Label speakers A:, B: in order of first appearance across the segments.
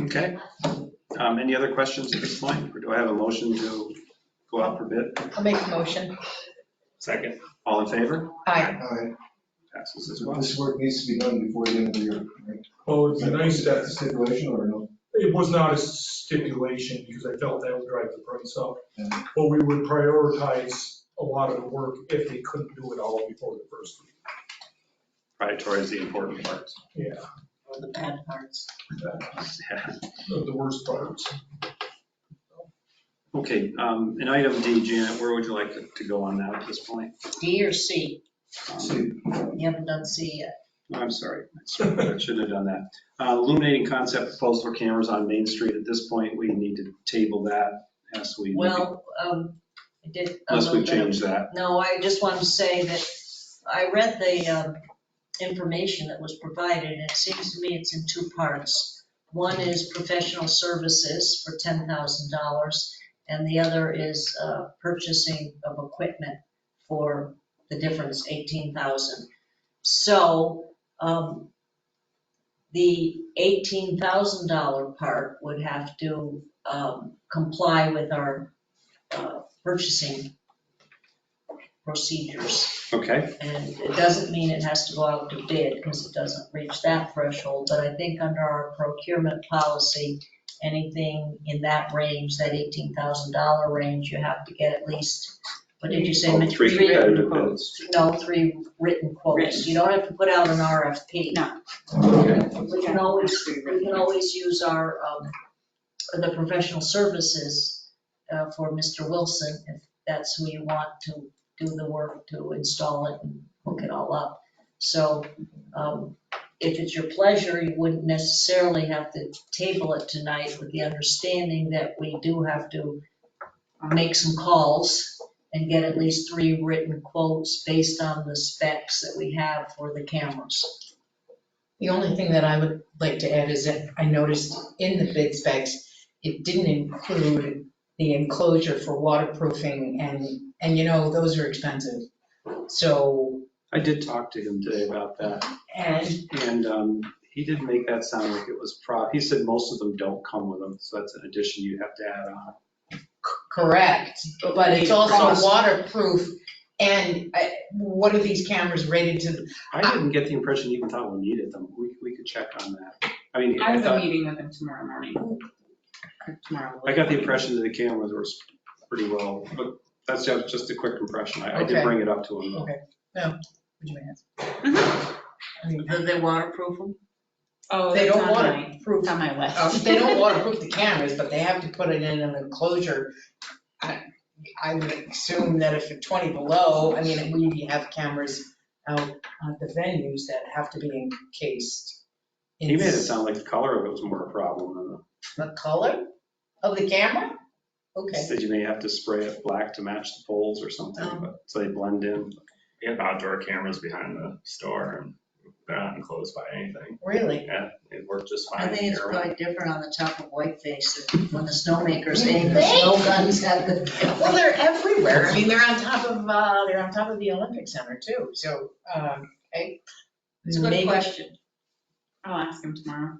A: Okay. Um, Any other questions at this point? Or do I have a motion to go out for bid?
B: I'll make a motion.
C: Second.
A: All in favor?
B: Aye.
D: Alright,
A: Passes as
D: so
A: well.
D: This work needs to be done before the end of the year, right?
E: Well, it's a nice,
D: Is that the stipulation or no?
E: it was not a stipulation because I felt that would drive the price up.
D: Yeah.
E: But we would prioritize a lot of the work if they couldn't do it all before the first week.
A: Probably towards the important parts.
E: Yeah,
B: The bad parts.
A: Yeah.
E: the the worst parts.
A: Okay, um, in item D, Janet, where would you like to to go on that at this point?
B: D or C?
A: Um,
D: See,
B: You haven't done C yet.
A: I'm sorry, I shouldn't have done that. Uh, Illuminating concept proposal for cameras on Main Street. At this point, we need to table that as we,
B: Well, um, I did. a
A: unless we
B: little bit of-
A: change that.
B: No, I just wanted to say that I read the um, information that was provided, and it seems to me it's in two parts. One is professional services for $10,000, and the other is uh, purchasing of equipment for the difference, $18,000. So um, the $18,000 part would have to um, comply with our uh, purchasing procedures.
A: Okay,
B: And it doesn't mean it has to go out to bid because it doesn't reach that threshold. But I think under our procurement policy, anything in that range, that $18,000 range, you have to get at least, what did you say?
A: Well, Oh, three competitive bids.
B: No, three written quotes.
F: Written.
B: You don't have to put out an RFP.
F: No.
A: Okay,
B: We can always, we can always use our, um, the professional services uh, for Mr. Wilson, if that's who you want to do the work, to install it and hook it all up. So um, if it's your pleasure, you wouldn't necessarily have to table it tonight with the understanding that we do have to make some calls and get at least three written quotes based on the specs that we have for the cameras.
G: The only thing that I would like to add is that I noticed in the bid specs, it didn't include the enclosure for waterproofing and, and you know, those are expensive. So,
A: I did talk to him today about that.
G: and
A: And um, he did make that sound like it was pro, he said most of them don't come with them, so that's an addition you have to add on.
G: c- correct, but it's also waterproof. And I- what are these cameras rated to?
A: I didn't get the impression you even thought we needed them. We, we could check on that. I mean,
F: I
A: I
F: have a
A: thought,
F: meeting with him tomorrow morning. Or Tomorrow.
A: I got the impression that the cameras were pretty well, but that's ju- just a quick impression. I I did
G: Okay.
A: bring it up to him. though.
G: Would you ask? I mean,
B: Did they waterproof them?
F: Oh,
G: They
F: it's
G: don't
F: on
G: want
F: my,
G: to proof
F: it's on my
G: Um,
F: list.
G: They don't waterproof the cameras, but they have to put it in an enclosure. I I would assume that if it's 20 below, I mean, we have cameras out at the venues that have to be encased. in
A: He made it sound like the color of it was more a problem than the,
G: The color of the camera?
A: he
G: Okay.
A: said you may have to spray it black to match the poles or something,
G: Um.
A: but, so they blend in.
C: We have outdoor cameras behind the store and they're not enclosed by anything.
G: Really?
C: Yeah, it worked just
B: I
C: fine.
B: think it's
C: here.
B: probably different on the top of Whiteface than when the snowmakers aim the snow guns at the.
G: Well, they're everywhere. I mean, they're on top of, uh, they're on top of the Olympic Center too, so, um, okay.
B: It's a good
G: Maybe-
B: question.
F: I'll ask him tomorrow.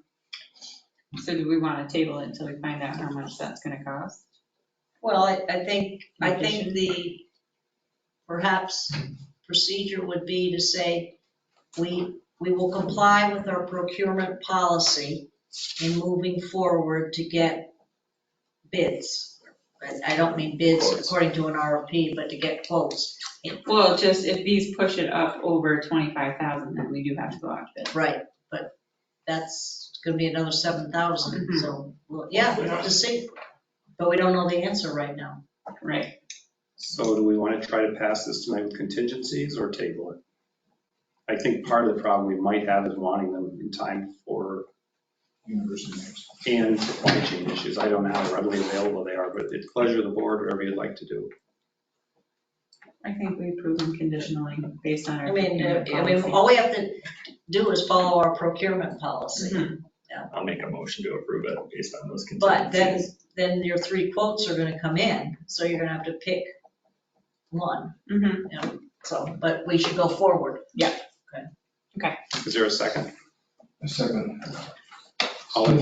F: So do we want to table it until we find out how much that's going to cost?
B: Well, I, I think, I think the, perhaps procedure would be to say, we, we will comply with our procurement policy in moving forward to get bids. I, I don't mean bids according to an RFP, but to get quotes.
F: Well, just if these push it up over 25,000, then we do have to go out to bid.
B: Right, but that's gonna be another seven thousand,
F: Mhm.
B: so, well, yeah, we'll have to see. But we don't know the answer right now.
F: Right.
A: So do we want to try to pass this tonight with contingencies or table it? I think part of the problem we might have is wanting them in time for,
D: University next.
A: and supply chain issues. I don't know how readily available they are, but it's pleasure of the board, whatever you'd like to do.
F: I think we approve them conditionally based on our.
B: I mean, uh, I mean,
F: policy.
B: all we have to do is follow our procurement policy.
F: Mhm.
C: I'll make a motion to approve it based on those
B: But then,
C: contingencies.
B: then your three quotes are gonna come in, so you're gonna have to pick one,
F: Mhm.
B: so, but we should go forward.
A: Is there a second?
D: A second.
A: All in